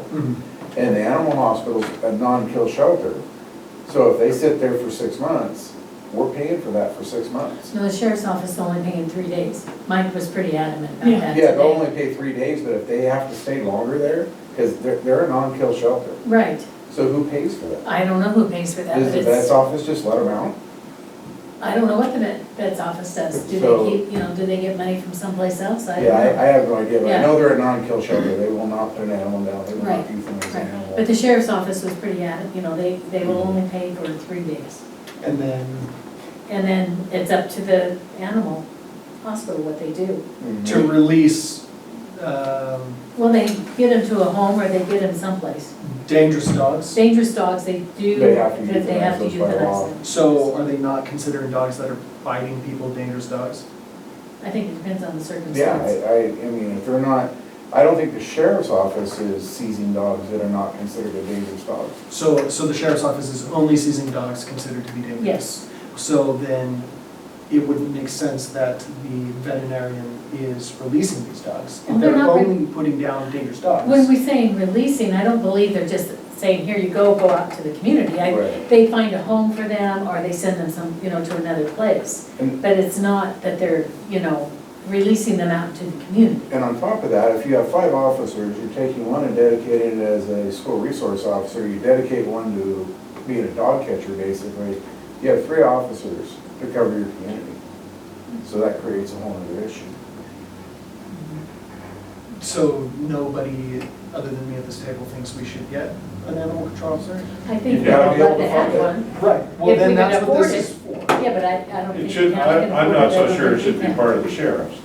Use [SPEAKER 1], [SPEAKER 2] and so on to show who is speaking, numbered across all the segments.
[SPEAKER 1] Mm-hmm.
[SPEAKER 2] And the animal hospital's a non-kill shelter. So if they sit there for six months, we're paying for that for six months.
[SPEAKER 3] No, the sheriff's office only paying three days. Mike was pretty adamant about
[SPEAKER 4] Yeah.
[SPEAKER 3] that
[SPEAKER 2] Yeah, they'll only
[SPEAKER 3] today.
[SPEAKER 2] pay three days, but if they have to stay longer there, because they're, they're a non-kill shelter,
[SPEAKER 3] Right,
[SPEAKER 2] so who pays for that?
[SPEAKER 3] I don't know who pays for that,
[SPEAKER 2] Does
[SPEAKER 3] but
[SPEAKER 2] the vet's
[SPEAKER 3] it's,
[SPEAKER 2] office just let them out?
[SPEAKER 3] I don't know what the vet, vet's office does. Do
[SPEAKER 2] So-
[SPEAKER 3] they keep, you know, do they get money from someplace else? I don't
[SPEAKER 2] Yeah, I,
[SPEAKER 3] know.
[SPEAKER 2] I have no idea, but I
[SPEAKER 3] Yeah.
[SPEAKER 2] know they're a non-kill shelter, they will not put an animal down, they will not
[SPEAKER 3] Right,
[SPEAKER 2] euthanize an
[SPEAKER 3] Right.
[SPEAKER 2] animal.
[SPEAKER 3] But the sheriff's office was pretty adamant, you know, they, they will only pay for three days.
[SPEAKER 1] And then
[SPEAKER 3] And then it's up to the animal hospital what they do.
[SPEAKER 2] Mhm.
[SPEAKER 1] to release um,
[SPEAKER 3] Well, they get them to a home or they get them someplace.
[SPEAKER 1] dangerous dogs.
[SPEAKER 3] Dangerous dogs, they do,
[SPEAKER 2] They have to
[SPEAKER 3] that they have to
[SPEAKER 2] euthanize those by law.
[SPEAKER 3] euthanize them.
[SPEAKER 1] So are they not considering dogs that are biting people dangerous dogs?
[SPEAKER 3] I think it depends on the
[SPEAKER 2] Yeah,
[SPEAKER 3] circumstance.
[SPEAKER 2] I, I, I mean, if they're not, I don't think the sheriff's office is seizing dogs that are not considered a dangerous dog.
[SPEAKER 1] So, so the sheriff's office is only seizing dogs considered to be dangerous?
[SPEAKER 3] Yes.
[SPEAKER 1] So then it wouldn't make sense that the veterinarian is releasing these dogs.
[SPEAKER 3] Well,
[SPEAKER 1] If
[SPEAKER 3] they're
[SPEAKER 1] they're
[SPEAKER 3] not re-
[SPEAKER 1] only putting down dangerous
[SPEAKER 3] When
[SPEAKER 1] dogs.
[SPEAKER 3] we saying releasing, I don't believe they're just saying, here you go, go out to the community. I-
[SPEAKER 2] Right.
[SPEAKER 3] They find a home for them, or they send them some, you know, to another place.
[SPEAKER 2] And,
[SPEAKER 3] But it's not that they're, you know, releasing them out to the community.
[SPEAKER 2] and on top of that, if you have five officers, you're taking one and dedicating it as a school resource officer, you dedicate one to being a dog catcher, basically. You have three officers to cover your community. So that creates a whole other issue.
[SPEAKER 1] So nobody other than me at this table thinks we should get an animal control officer?
[SPEAKER 3] I think
[SPEAKER 5] You
[SPEAKER 3] they're
[SPEAKER 5] gotta
[SPEAKER 3] all
[SPEAKER 2] be able
[SPEAKER 3] glad
[SPEAKER 2] to
[SPEAKER 3] to have
[SPEAKER 2] find it.
[SPEAKER 3] one.
[SPEAKER 1] Right, well
[SPEAKER 3] If we
[SPEAKER 1] then
[SPEAKER 3] could
[SPEAKER 1] that's what
[SPEAKER 3] afford
[SPEAKER 1] this is for.
[SPEAKER 3] Yeah, but I, I don't think.
[SPEAKER 5] It should,
[SPEAKER 3] now we
[SPEAKER 5] I,
[SPEAKER 3] can
[SPEAKER 5] I'm
[SPEAKER 3] afford
[SPEAKER 5] not
[SPEAKER 3] that.
[SPEAKER 5] so
[SPEAKER 3] We're
[SPEAKER 5] sure it should be
[SPEAKER 3] gonna
[SPEAKER 5] part of the sheriff's.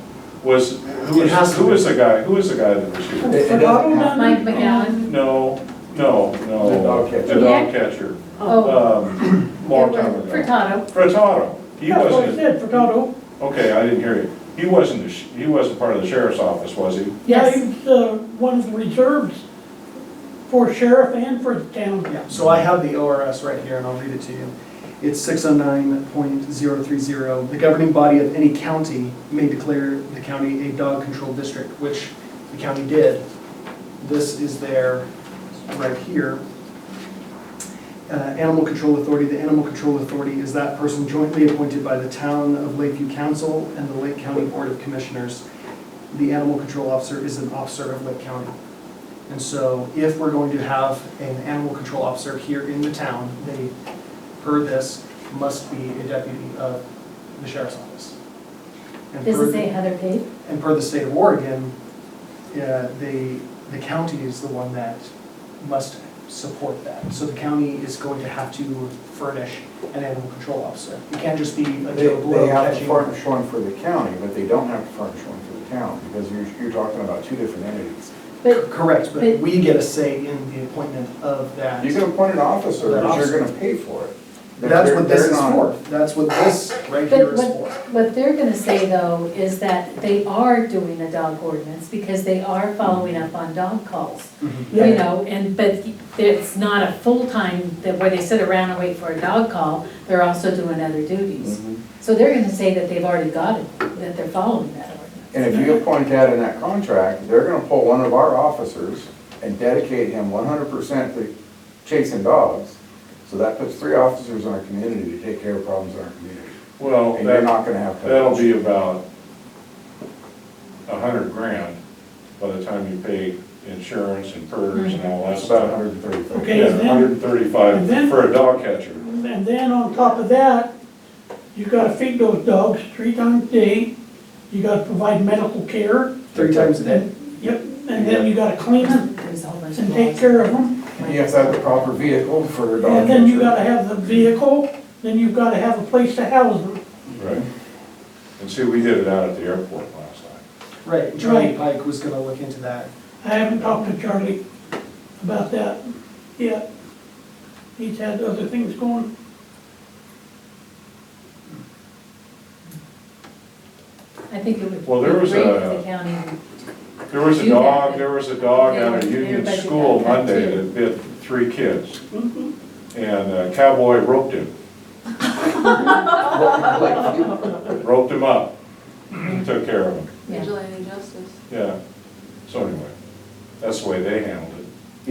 [SPEAKER 5] Was, who
[SPEAKER 1] It has
[SPEAKER 5] was,
[SPEAKER 1] to
[SPEAKER 5] who
[SPEAKER 1] be.
[SPEAKER 5] was the guy, who was the guy that was shooting?
[SPEAKER 2] It- it doesn't have-
[SPEAKER 3] Mike McGowan,
[SPEAKER 5] No, no, no.
[SPEAKER 2] The dog catcher.
[SPEAKER 5] The dog catcher.
[SPEAKER 3] oh.
[SPEAKER 5] Um, long time
[SPEAKER 3] Edward
[SPEAKER 5] ago.
[SPEAKER 3] Furtado,
[SPEAKER 5] Furtado. He
[SPEAKER 6] That's what I
[SPEAKER 5] wasn't,
[SPEAKER 6] said, Furtado.
[SPEAKER 5] okay, I didn't hear you. He wasn't, the sh- he wasn't part of the sheriff's office, was he?
[SPEAKER 6] Yeah,
[SPEAKER 3] yes.
[SPEAKER 6] he was uh, one of the reserves for sheriff and for the town.
[SPEAKER 1] Yeah, so I have the ORS right here, and I'll read it to you. It's 609.030. oh. The governing body of any county may declare the county a dog control district, which the county did. This is their, right here. Uh, Animal Control Authority, the Animal Control Authority is that person jointly appointed by the town of Lakeview Council and the Lake County Board of Commissioners. The Animal Control Officer is an officer of Lake County. And so if we're going to have an animal control officer here in the town, they, per this, must be a deputy of the sheriff's office. And
[SPEAKER 3] Does
[SPEAKER 1] per-
[SPEAKER 3] it say Heather Page?
[SPEAKER 1] And per the state of Oregon, uh, the, the county is the one that must support that. So the county is going to have to furnish an animal control officer. It can't just be a
[SPEAKER 2] They,
[SPEAKER 1] Joe Blow
[SPEAKER 2] they have to
[SPEAKER 1] catching.
[SPEAKER 2] furnish one for the county, but they don't have to furnish one for the town, because you're, you're talking about two different entities.
[SPEAKER 3] But,
[SPEAKER 1] Correct,
[SPEAKER 3] but-
[SPEAKER 1] but we get a say in the appointment of that.
[SPEAKER 2] You can appoint an officer,
[SPEAKER 1] That
[SPEAKER 2] but
[SPEAKER 1] officer.
[SPEAKER 2] you're gonna pay for it. They're-
[SPEAKER 1] That's what this
[SPEAKER 2] they're
[SPEAKER 1] is
[SPEAKER 2] not-
[SPEAKER 1] for. That's what this right here
[SPEAKER 3] but
[SPEAKER 1] is
[SPEAKER 3] what,
[SPEAKER 1] for.
[SPEAKER 3] what they're gonna say though is that they are doing a dog ordinance because they are following up on dog calls. You
[SPEAKER 6] Yeah.
[SPEAKER 3] know, and, but it's not a full-time, that where they sit around and wait for a dog call, they're also doing other duties.
[SPEAKER 5] Mm-hmm.
[SPEAKER 2] Mhm.
[SPEAKER 3] So they're gonna say that they've already got it, that they're following that ordinance.
[SPEAKER 2] And if you appoint that in that contract, they're gonna pull one of our officers and dedicate him one hundred percent to chasing dogs. So that puts three officers in our community to take care of problems in our community.
[SPEAKER 5] Well,
[SPEAKER 2] And you're
[SPEAKER 5] that,
[SPEAKER 2] not gonna have to.
[SPEAKER 5] that'll be about a hundred grand by the time you pay insurance and PERS and all that
[SPEAKER 2] It's about
[SPEAKER 5] stuff.
[SPEAKER 2] a hundred and thirty.
[SPEAKER 6] Okay,
[SPEAKER 5] Yeah,
[SPEAKER 6] and
[SPEAKER 5] hundred
[SPEAKER 6] then,
[SPEAKER 5] and thirty-five
[SPEAKER 6] and then-
[SPEAKER 5] for a dog catcher.
[SPEAKER 6] and then on top of that, you gotta feed those dogs three times a day. You gotta provide medical care.
[SPEAKER 1] Three times a day.
[SPEAKER 6] Yep, and then you gotta clean them
[SPEAKER 3] There's a whole bunch of
[SPEAKER 6] and take
[SPEAKER 3] laws.
[SPEAKER 6] care of them.
[SPEAKER 2] And you have to have the proper vehicle for a dog.
[SPEAKER 6] And then you
[SPEAKER 2] catcher.
[SPEAKER 6] gotta have the vehicle, then you've gotta have a place to house them.
[SPEAKER 5] Right. And see, we did it out at the airport last night.
[SPEAKER 1] Right, Johnny
[SPEAKER 6] Right.
[SPEAKER 1] Pike was gonna look into that.
[SPEAKER 6] I haven't talked to Charlie about that yet. He's had other things going.
[SPEAKER 3] I think it would be
[SPEAKER 5] Well, there
[SPEAKER 3] great
[SPEAKER 5] was
[SPEAKER 3] for
[SPEAKER 5] a-
[SPEAKER 3] the county.
[SPEAKER 5] There was a
[SPEAKER 3] You have
[SPEAKER 5] dog,
[SPEAKER 3] it.
[SPEAKER 5] there was a dog out of
[SPEAKER 3] Yeah,
[SPEAKER 5] Union
[SPEAKER 3] everybody
[SPEAKER 5] School
[SPEAKER 3] got that
[SPEAKER 5] Monday
[SPEAKER 3] too. Mm-hmm.
[SPEAKER 5] that bit three kids. And a cowboy roped him, roped him up, took care of him,
[SPEAKER 3] Yeah.
[SPEAKER 7] vigilante justice.
[SPEAKER 5] yeah. So anyway, that's the way they handled